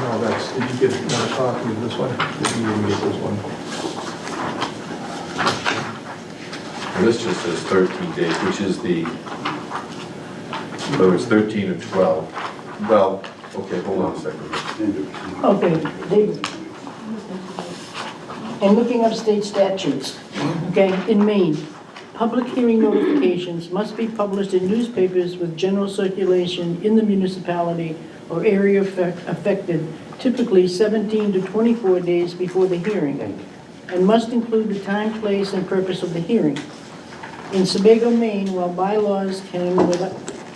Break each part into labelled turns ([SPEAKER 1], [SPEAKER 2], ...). [SPEAKER 1] No, that's, did you get another copy of this one? Did you even get this one?
[SPEAKER 2] This just says 13 days, which is the, so it's 13 and 12. Well, okay, hold on a second.
[SPEAKER 3] Okay, David. And looking up state statutes, okay, in Maine, public hearing notifications must be published in newspapers with general circulation in the municipality or area affect- affected, typically 17 to 24 days before the hearing, and must include the time, place, and purpose of the hearing. In Sebago, Maine, while bylaws can,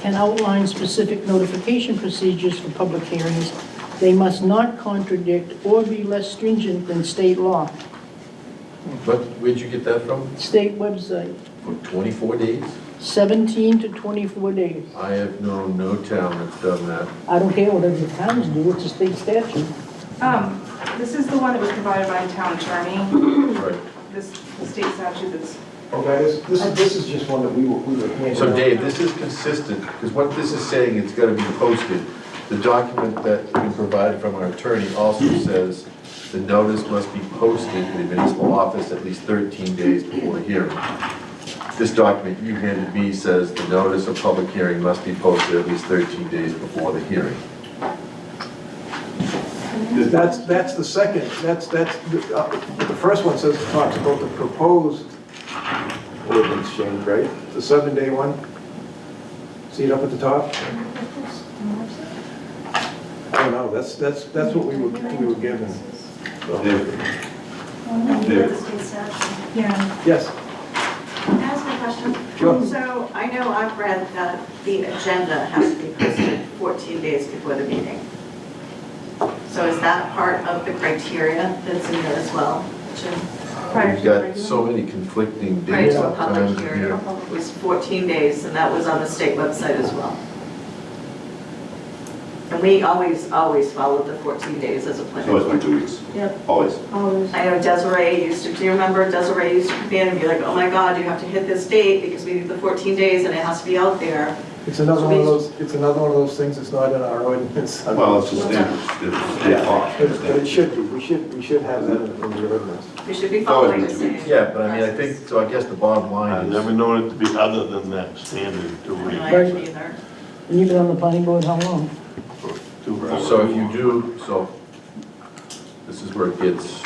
[SPEAKER 3] can outline specific notification procedures for public hearings, they must not contradict or be less stringent than state law,
[SPEAKER 2] But where'd you get that from?
[SPEAKER 3] state website,
[SPEAKER 2] From 24 days?
[SPEAKER 3] 17 to 24 days.
[SPEAKER 2] I have known no town that's done that.
[SPEAKER 3] I don't care what other towns do, it's a state statute.
[SPEAKER 4] Um, this is the one that was provided by the town attorney,
[SPEAKER 2] Right.
[SPEAKER 4] this state statute that's,
[SPEAKER 1] Okay, this, this Oh, is, this is just one that we were, we were handing
[SPEAKER 2] So
[SPEAKER 1] out.
[SPEAKER 2] Dave, this is consistent, because what this is saying, it's gotta be posted. The document that's been provided from our attorney also says the notice must be posted in the municipal office at least 13 days before the hearing. This document you handed me says the notice of public hearing must be posted at least 13 days before the hearing.
[SPEAKER 1] That's, that's the second, that's, that's, the uh, the first one says, talks about the proposed ordinance change, right? The seven-day one? See it up at the top? I don't know, that's, that's, that's what we were, we were given. So-
[SPEAKER 4] yeah,
[SPEAKER 1] Yes,
[SPEAKER 5] Can I ask a question?
[SPEAKER 1] Sure.
[SPEAKER 5] So I know I've read that the agenda has to be posted 14 days before the meeting. So is that part of the criteria that's in there as well?
[SPEAKER 4] prior
[SPEAKER 2] We've
[SPEAKER 4] to the
[SPEAKER 2] got
[SPEAKER 4] regular.
[SPEAKER 2] so many conflicting
[SPEAKER 5] Prior
[SPEAKER 2] dates
[SPEAKER 5] to a public
[SPEAKER 2] sometimes
[SPEAKER 5] hearing
[SPEAKER 2] here.
[SPEAKER 5] was 14 days, and that was on the state website as well. And we always, always followed the 14 days as a
[SPEAKER 6] It's
[SPEAKER 5] planning
[SPEAKER 6] always been
[SPEAKER 5] board.
[SPEAKER 6] two weeks,
[SPEAKER 5] Yep.
[SPEAKER 6] always.
[SPEAKER 5] I know Desiree used to, do you remember Desiree used to come in and be like, oh my God, you have to hit this date because we need the 14 days and it has to be out there.
[SPEAKER 1] it's another one of those, it's another one of those things that's not in our ordinance.
[SPEAKER 6] Well, it's just standard, it's state law.
[SPEAKER 1] But it- but it should be, we should, we should have that in the ordinance.
[SPEAKER 5] We should be
[SPEAKER 6] Oh,
[SPEAKER 5] following the
[SPEAKER 6] it's-
[SPEAKER 5] same.
[SPEAKER 2] Yeah, but I mean, I think, so I guess the bottom
[SPEAKER 7] I've
[SPEAKER 2] line
[SPEAKER 7] never
[SPEAKER 2] is,
[SPEAKER 7] known it to be other than that standard two
[SPEAKER 5] No, I
[SPEAKER 7] weeks.
[SPEAKER 5] haven't either.
[SPEAKER 3] And you've been on the planning board how long?
[SPEAKER 7] two
[SPEAKER 2] so if you do, so this is where it gets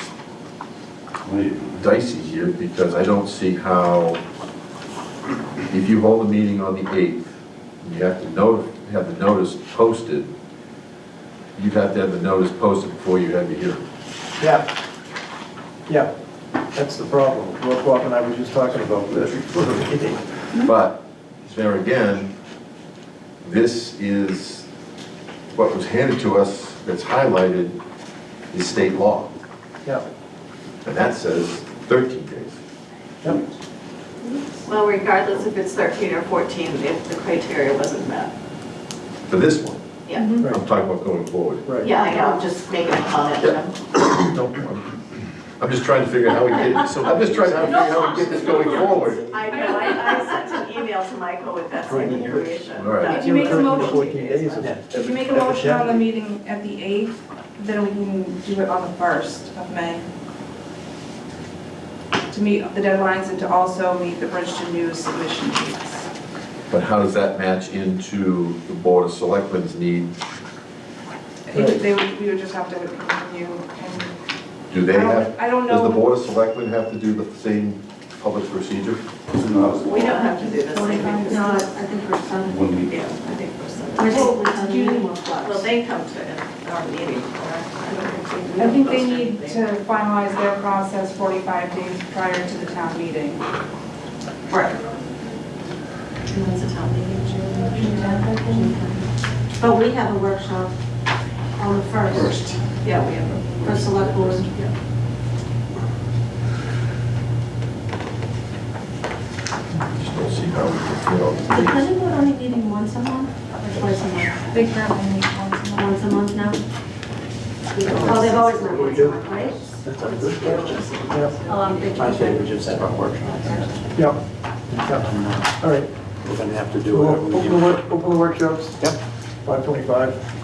[SPEAKER 6] Wait.
[SPEAKER 2] dicey here because I don't see how, if you hold a meeting on the 8th, and you have to note, have the notice posted, you'd have to have the notice posted before you have the hearing.
[SPEAKER 1] Yeah, yeah, that's the problem. Well, Bob and I were just talking about this.
[SPEAKER 2] But there again, this is, what was handed to us that's highlighted is state law,
[SPEAKER 1] Yeah,
[SPEAKER 2] and that says 13 days.
[SPEAKER 1] yeah.
[SPEAKER 5] Well, regardless if it's 13 or 14, if the criteria wasn't met.
[SPEAKER 2] For this one,
[SPEAKER 5] Yeah,
[SPEAKER 1] Right,
[SPEAKER 2] I'm talking about going forward.
[SPEAKER 1] right.
[SPEAKER 5] yeah, I know, I'm just making a comment.
[SPEAKER 2] Don't- I'm just trying to figure out how we get, so I'm just trying to figure out how we get this going forward.
[SPEAKER 5] I know, I, I sent an email to Michael with that same information.
[SPEAKER 2] All right.
[SPEAKER 5] that
[SPEAKER 4] Did you make a motion?
[SPEAKER 1] 14 days is-
[SPEAKER 4] If you make a motion on the meeting at the 8th, then we can do it on the 1st of May. To meet the deadlines and to also meet the Bridgeton News submission dates.
[SPEAKER 2] But how does that match into the Board of Selectmen's need?
[SPEAKER 4] I think they would, we would just have to continue and.
[SPEAKER 2] Do they
[SPEAKER 4] I don't-
[SPEAKER 2] have?
[SPEAKER 4] I don't
[SPEAKER 2] Does the
[SPEAKER 4] know.
[SPEAKER 2] Board of Selectmen have to do the same public procedure?
[SPEAKER 6] No,
[SPEAKER 5] We don't have to do this. I think.
[SPEAKER 8] No, I think we're done.
[SPEAKER 6] One week.
[SPEAKER 5] Yeah, I think we're set.
[SPEAKER 8] We're still, we're done, we need more blocks.
[SPEAKER 5] Well, they come to our meeting, correct? I don't think we
[SPEAKER 4] I think they
[SPEAKER 5] post
[SPEAKER 4] need
[SPEAKER 5] anything.
[SPEAKER 4] to finalize their process 45 days prior to the town meeting.
[SPEAKER 5] Right.
[SPEAKER 8] And that's a town meeting, June 10th, I think. But we have a workshop on the first
[SPEAKER 6] First.
[SPEAKER 5] Yeah, we have.
[SPEAKER 8] for select board.
[SPEAKER 2] Just don't see how we can fill
[SPEAKER 8] The
[SPEAKER 2] out the
[SPEAKER 8] planning board only meeting once a month or twice a month?
[SPEAKER 4] They currently meet once a
[SPEAKER 8] Once a month now? Oh, they've always met once a month, right?
[SPEAKER 1] That's a good question. Yeah,
[SPEAKER 8] Oh, I'm thinking.
[SPEAKER 9] I say we just have our workshop,
[SPEAKER 1] yeah, yeah.
[SPEAKER 9] and uh,
[SPEAKER 1] all right.
[SPEAKER 9] we're gonna have to do
[SPEAKER 1] We'll
[SPEAKER 9] whatever we
[SPEAKER 1] Open the
[SPEAKER 9] do.
[SPEAKER 1] work, open the workshops.
[SPEAKER 9] Yep.
[SPEAKER 1] 5:25.